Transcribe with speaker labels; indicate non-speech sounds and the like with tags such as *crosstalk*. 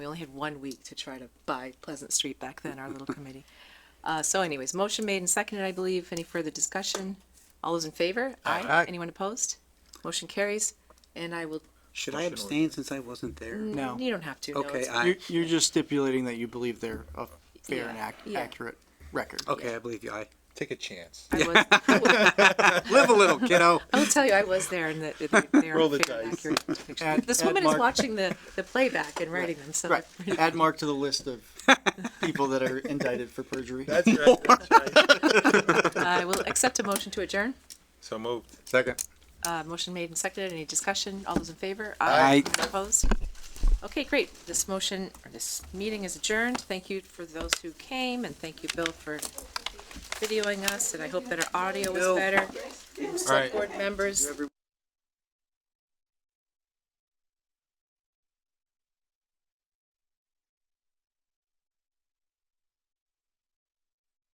Speaker 1: We only had one week to try to buy Pleasant Street back then, our little committee. Uh, so anyways, motion made and seconded, I believe. Any further discussion? All those in favor?
Speaker 2: Aye.
Speaker 1: Anyone opposed? Motion carries, and I will,
Speaker 3: Should I abstain since I wasn't there?
Speaker 2: No.
Speaker 1: you don't have to. no,
Speaker 3: Okay,
Speaker 1: it's-
Speaker 3: I,
Speaker 2: You're, you're just stipulating that you believe they're a fair and
Speaker 1: Yeah,
Speaker 2: ac-
Speaker 1: yeah.
Speaker 2: accurate record.
Speaker 3: okay, I believe you. I
Speaker 4: Take a chance.
Speaker 1: I was, I was-
Speaker 3: live a little, kiddo.
Speaker 1: I will tell you, I was there and that, that they are
Speaker 4: Roll the
Speaker 1: fair and
Speaker 4: dice.
Speaker 1: accurate depiction.
Speaker 2: Add-
Speaker 1: This
Speaker 2: add
Speaker 1: woman is
Speaker 2: Mark-
Speaker 1: watching the, the playback and writing them, so.
Speaker 2: Right. Add Mark to the list of people that are indicted for perjury.
Speaker 4: That's right. That's
Speaker 1: *laughs*
Speaker 4: right.
Speaker 1: I will accept a motion to adjourn.
Speaker 4: So moved.
Speaker 3: Second.
Speaker 1: Uh, motion made and seconded. Any discussion? All those in favor?
Speaker 2: Aye.
Speaker 1: Anyone Opposed? Okay, great. This motion, or this meeting is adjourned. Thank you for those who came, and thank you, Bill, for videoing us, and I hope that our audio was
Speaker 3: Bill.
Speaker 1: better. Select
Speaker 4: right.
Speaker 1: board members,